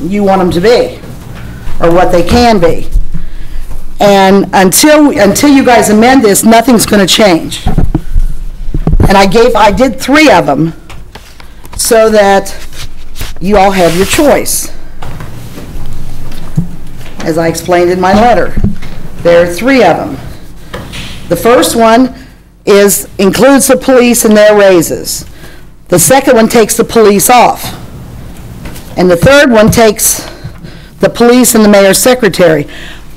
you want them to be, or what they can be. And until, until you guys amend this, nothing's going to change. And I gave, I did three of them, so that you all have your choice. As I explained in my letter, there are three of them. The first one is, includes the police and their raises. The second one takes the police off. And the third one takes the police and the mayor's secretary.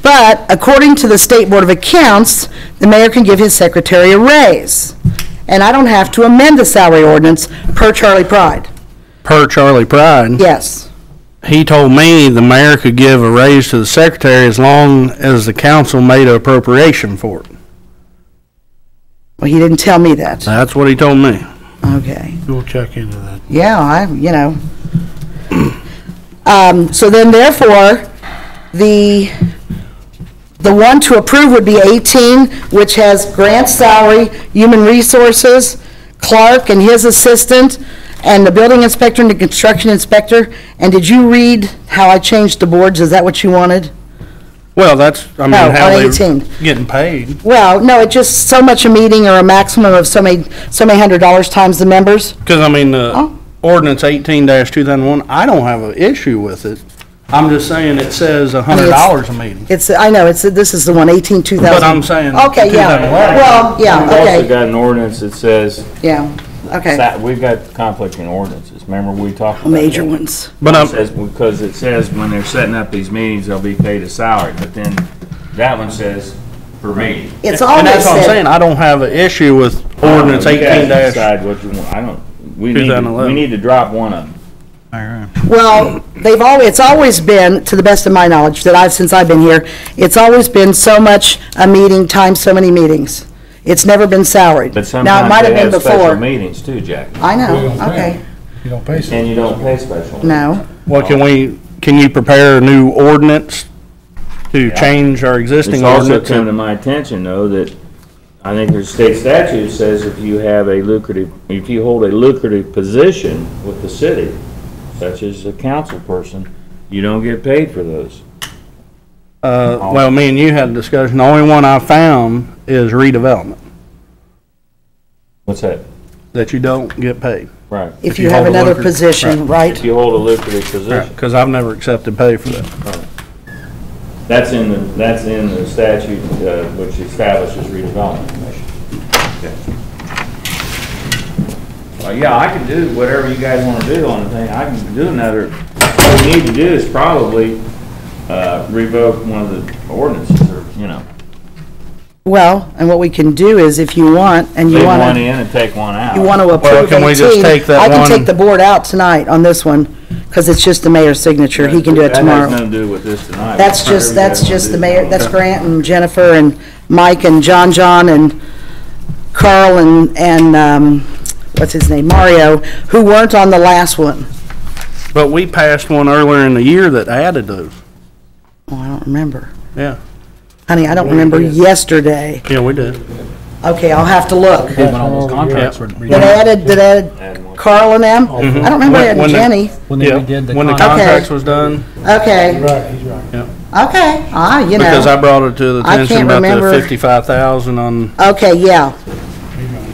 But according to the State Board of Accounts, the mayor can give his secretary a raise. And I don't have to amend the salary ordinance per Charlie Pride. Per Charlie Pride, Yes. he told me the mayor could give a raise to the secretary as long as the council made an appropriation for it. Well, he didn't tell me that. That's what he told me. Okay. We'll check into that. Yeah, I, you know. Um, so then therefore, the, the one to approve would be 18, which has grant salary, human resources, Clark and his assistant, and the building inspector and the construction inspector. And did you read how I changed the boards? Is that what you wanted? Well, that's, I mean, No, how Oh, on they 18. getting paid. Well, no, it just so much a meeting or a maximum of so many, so many hundred dollars times the members. Because, I mean, the Oh. ordinance eighteen two thousand one, I don't have an issue with it. I'm just saying it says a hundred dollars a meeting. It's, I know, it's, this is the one, 18, 2000. But I'm saying Okay, yeah, 2011. well, yeah, We've also okay, got an ordinance that says, yeah, okay. that- we've got conflicting ordinances, remember we talked about that? Major ones. But um, It I'm, says, because it says when they're setting up these meetings, they'll be paid a salary, but then that one says per meeting. It's and always that's what I'm said, saying, I don't have an issue with ordinance Oh, You guys eighteen Uh, Decide what you want, I don't, we need, to- 2011. we need to drop one of them. well, they've always, it's always been, to the best of my knowledge, that I've, since I've been here, it's always been so much a meeting times so many meetings. It's never been salaried. But Now, it might sometimes have they been have special before. Uh, meetings too, Jack, I know, okay, You don't pay and you don't pay special. no, Well, can we, can you prepare a new ordinance to change our It's existing also ordinance? come to my attention, though, that I think there's state statute says if you have a lucrative, if you hold a lucrative position with the city, such as a council person, you don't get paid for those. Uh, well, me and you had a discussion, the only one I found is redevelopment, What's that? that you don't get paid. Right. if you have hold a another lucrative- position, right? If you hold a lucrative position. Because I've never accepted pay for that. That's in the, that's in the statute, uh, which establishes redevelopment commission. Well, yeah, I can do whatever you guys wanna do on the thing, I can do another, what we need to do is probably, uh, revoke one of the ordinances, or, you know, Well, and what we can do is if you want, and you leave want to. one in and take one out. You want to Well, approve can we just 18. take that I can one- take the board out tonight on this one, because it's just the mayor's signature. He can do it That has tomorrow. nothing to do with this tonight. That's just, Whatever you guys that's wanna just do. the mayor, that's Grant and Jennifer and Mike and John John and Carl and, and, um, what's his name, Mario, who weren't on the last one. But we passed one earlier in the year that added those. Oh, I don't remember. Yeah, Honey, I don't remember yesterday. yeah, we did. Okay, I'll have to look. That contracts were- added, that Add one. added Carl and them? I don't remember When- adding when the- Jenny. When Yeah, they did the when the contract. contracts was done, Okay, Right, he's right. okay, ah, you know. because I brought it to the I attention can't about the remember. fifty-five thousand on, Okay, yeah.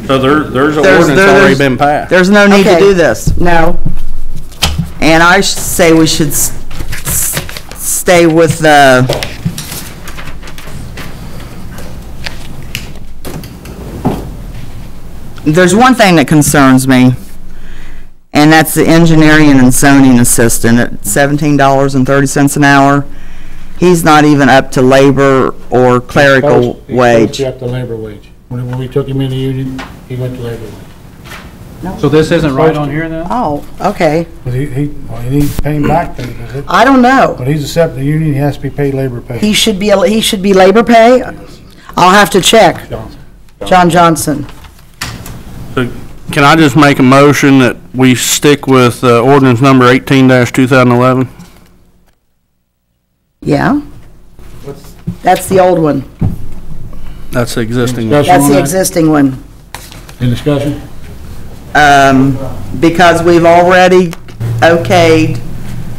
so there, there's an There's- ordinance there- already there's- been passed. There's no need to Okay. do this. No, And I sh- say we should s- s- stay with the, there's one thing that concerns me, and that's the engineering and zoning assistant at $17.30 an hour. He's not even up to labor or clerical First, he wage. first got the labor wage. When, when we took him in the union, he went to labor wage. So this isn't right on here then? oh, okay, But he, he, well, he needs paying back then, because it, I don't know. when he's accepting the union, he has to be paid labor pay. He should be, he should be labor pay? I'll have to check, Johnson. John Johnson. So Can I just make a motion that we stick with uh, ordinance number eighteen two thousand eleven? Yeah? That's the old one, That's the existing one. Discussion that's on the that? existing one. Any discussion? um, because we've already okayed